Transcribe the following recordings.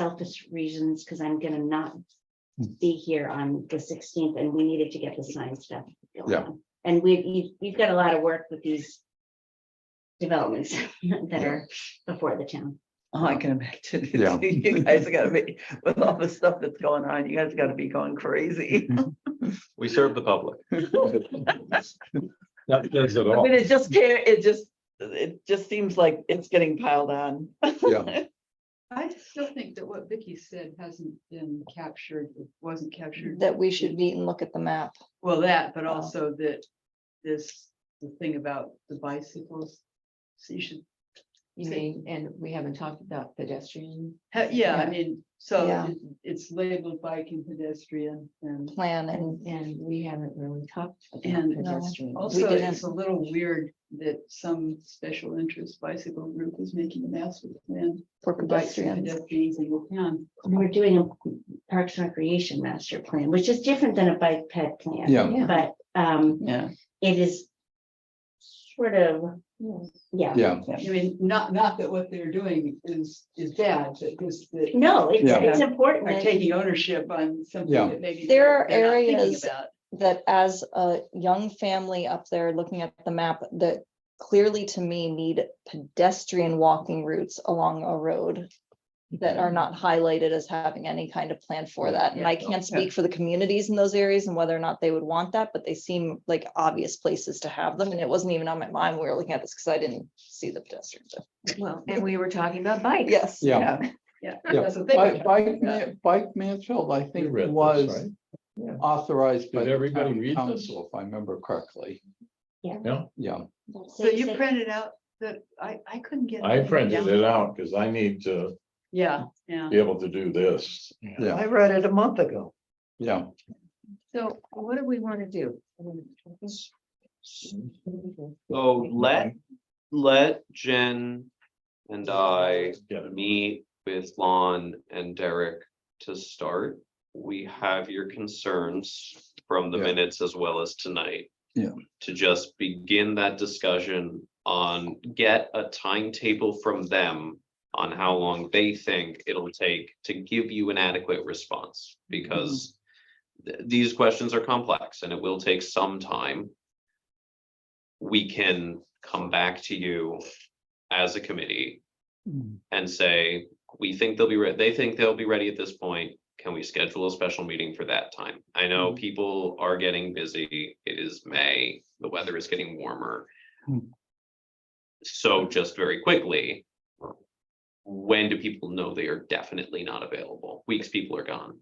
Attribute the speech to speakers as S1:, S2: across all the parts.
S1: selfish reasons, because I'm gonna not
S2: Hmm.
S1: be here on the sixteenth, and we needed to get the sign stuff. going
S2: Yeah.
S1: on. And we've, you've, you've got a lot of work with these developments that are before the town.
S3: Oh, I can imagine.
S2: Yeah.
S3: You guys gotta be, with all the stuff that's going on, you guys gotta be going crazy.
S4: We serve the public.
S2: That does it
S3: I
S2: all.
S3: mean, it just can't, it just, it just seems like it's getting piled on.
S2: Yeah.
S5: I still think that what Vicky said hasn't been captured, wasn't captured.
S6: that we should meet and look at the map.
S5: Well, that, but
S3: Oh.
S5: also that this, the thing about the bicycles. So you should,
S7: You
S5: See.
S7: mean, and we haven't talked about pedestrian,
S5: ha- yeah, I
S7: Yeah.
S5: mean, so
S6: Yeah.
S5: it- it's labeled bike and pedestrian and.
S6: plan and
S7: and, and we haven't really talked about
S5: And, uh,
S7: pedestrian.
S5: Also,
S6: didn't-
S5: it's a little weird that some special interest bicycle group is making a master plan.
S6: for
S5: for bikes and
S6: pedestrians.
S5: Pedestrians in the town.
S1: We're doing a Parks and Recreation Master Plan, which is different than a bike ped plan.
S2: Yeah.
S7: Yeah.
S1: But, um,
S3: Yeah,
S1: it is sort of, yeah,
S2: Yeah,
S5: I mean, not, not that what they're doing is, is bad, but just that.
S1: no, it's,
S2: Yeah.
S1: it's important.
S5: are
S1: that-
S5: taking ownership on something
S2: Yeah.
S5: that maybe.
S6: There are
S5: they're not thinking
S6: areas-
S5: about.
S6: That as a young family up there looking at the map, that clearly to me need pedestrian walking routes along a road. That are not highlighted as having any kind of plan for that. And I can't speak for the communities in those areas and whether or not they would want that, but they seem like obvious places to have them. And it wasn't even on my mind. when We were looking at this because I didn't see the pedestrians.
S7: Well, and we were talking about bikes.
S6: Yes.
S2: yeah.
S5: Yeah,
S2: Yeah.
S5: that's the
S8: Bike,
S5: thing.
S8: bike, Ma- bike Mansfield, I think
S2: read this,
S8: was
S2: right? Yeah.
S8: authorized by
S2: Did
S8: the
S2: everybody
S8: town
S2: read this?
S8: council, if I remember correctly.
S2: Yeah.
S8: Yeah,
S5: So you printed out that, I, I couldn't get.
S9: I
S5: anything
S9: printed
S5: down.
S9: it out because I need to
S5: Yeah, yeah.
S9: be able to do this.
S2: Yeah.
S3: I read it a month ago.
S2: Yeah,
S7: So what do we want to do?
S4: So let, let Jen and I
S9: Get it.
S4: meet with Lon and Derek to start. We have your concerns from the
S2: Yeah.
S4: minutes as well as tonight.
S2: Yeah.
S4: To just begin that discussion on, get a timetable from them on how long they think it'll take to give you an adequate response, because
S2: Mm-hmm.
S4: th- these questions are complex and it will take some time. We can come back to you as a committee and say, we think they'll be ready, they think they'll be ready at this point. Can we schedule a special meeting for that time? I know people are getting busy. It is May, the weather is getting warmer.
S2: Hmm.
S4: So just very quickly. When do people know they are definitely not available? Weeks people are gone.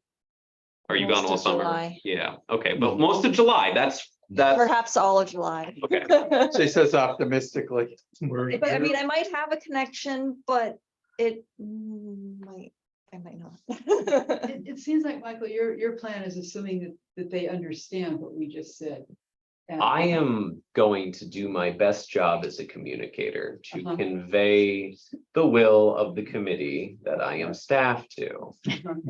S4: Are you gone
S6: Most
S4: all
S6: of
S4: summer?
S6: July.
S4: Yeah, okay, but most of July, that's, that's,
S6: Perhaps all of July.
S4: okay,
S8: she says optimistically.
S2: We're-
S6: But I mean, I might have a connection, but it might, I might not.
S5: It, it seems like, Michael, your, your plan is assuming that, that they understand what we just said. And-
S4: I am going to do my best job as a communicator to
S5: Uh-huh.
S4: convey the will of the committee that I am staffed to.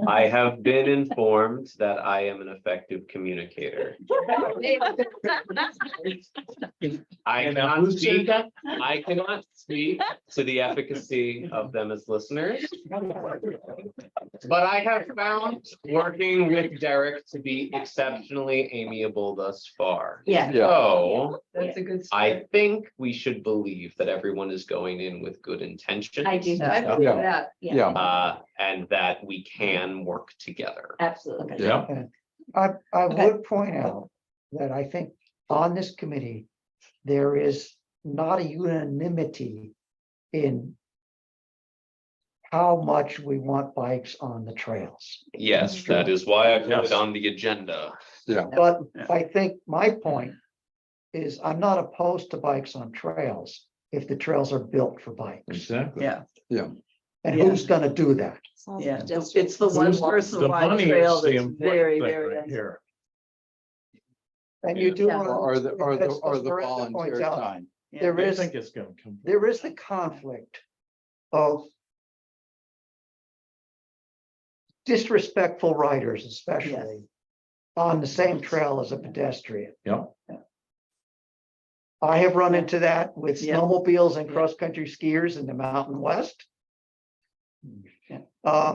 S4: I have been informed that I am an effective communicator. I
S2: And now
S4: cannot
S2: who said
S4: speak,
S2: that?
S4: I cannot speak to the efficacy of them as listeners. But I have found working with Derek to be exceptionally amiable thus far.
S1: Yeah.
S2: Yeah,
S4: So
S5: That's a good.
S4: I
S5: start.
S4: think we should believe that everyone is going in with good intentions.
S1: I do,
S5: I
S2: Yeah.
S5: feel that.
S2: yeah,
S4: Uh, and that we can work together.
S1: absolutely.
S2: yeah,
S10: I, I
S6: Okay.
S10: would point out that I think on this committee, there is not a unanimity in how much we want bikes on the trails.
S4: Yes, that is why I put
S9: Yes.
S4: it on the agenda.
S10: But I think my point is I'm not opposed to bikes on trails if the trails are built for bikes.
S9: Exactly.
S3: Yeah,
S10: And who's gonna do that?
S3: yeah. It's the one
S10: Who's-
S3: person
S9: The
S3: wide
S9: money
S3: trail
S9: is the
S3: that's
S9: important
S3: very,
S9: thing
S3: very.
S9: right
S3: uncertain.
S9: here.
S10: And you do.
S3: Yeah.
S10: wanna-
S2: or the, or the,
S10: that's-
S2: or
S10: that's
S2: the
S10: Miranda points
S2: volunteer
S10: out.
S2: time.
S10: There
S9: I
S10: is.
S9: think it's gonna come.
S10: there is the conflict of disrespectful riders especially on the same trail as a pedestrian.
S9: Yeah.
S10: I have run into that with
S3: Yeah.
S10: snowmobiles and
S3: Yeah.
S10: cross-country skiers in the Mountain West.
S3: Yeah.
S10: Um,